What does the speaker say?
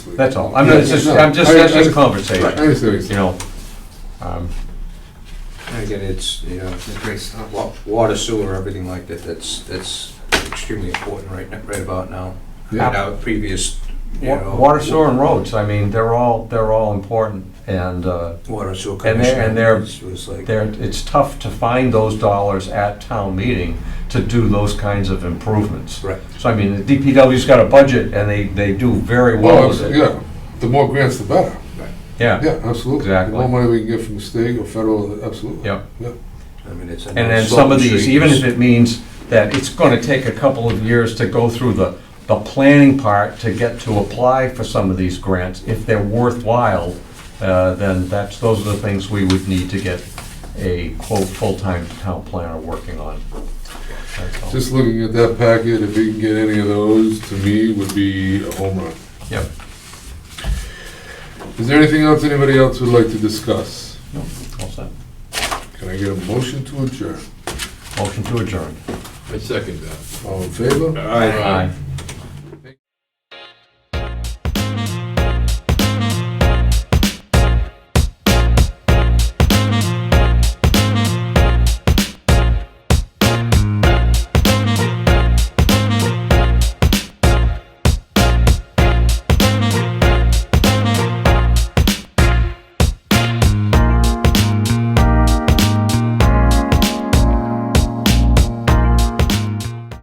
we- That's all. I'm, it's just, I'm just, Yeah, no, I- that's just a I- I conversation, understand what you're you saying. know? Um, And again, it's, you know, it creates a lot- water, sewer, everything like that, that's, that's extremely important right, now- right about now. Yeah. And our previous, you wa- know. Water, sewer, and roads, I mean, they're all, they're all important, and, uh, Water sewer and commissioner. they're- was- Was like, there, it's tough to find those dollars at town meeting to do those kinds of improvements. right, So I mean, the DPW's got a budget, and they, they do very well Well, with it's- it. Oh, yeah, the more grants, the better. Yeah, Yeah, absolutely. Exactly. The more money we can get from the state or federal, absolutely. Yep. I mean, it's. and then some of these, even if it means that it's gonna take a couple of years to go through the, the planning part to get to apply for some of these grants, if they're worthwhile, uh, then that's, those are the things we would need to get a quote, full-time town planner working on. That's all. Just looking at that packet, if we can get any of those, to me, would be a home run. Yep. Is there anything else anybody else would like to discuss? No, all set. Can I get a motion to adjourn? Motion to adjourn. I second that. All in favor? Aye.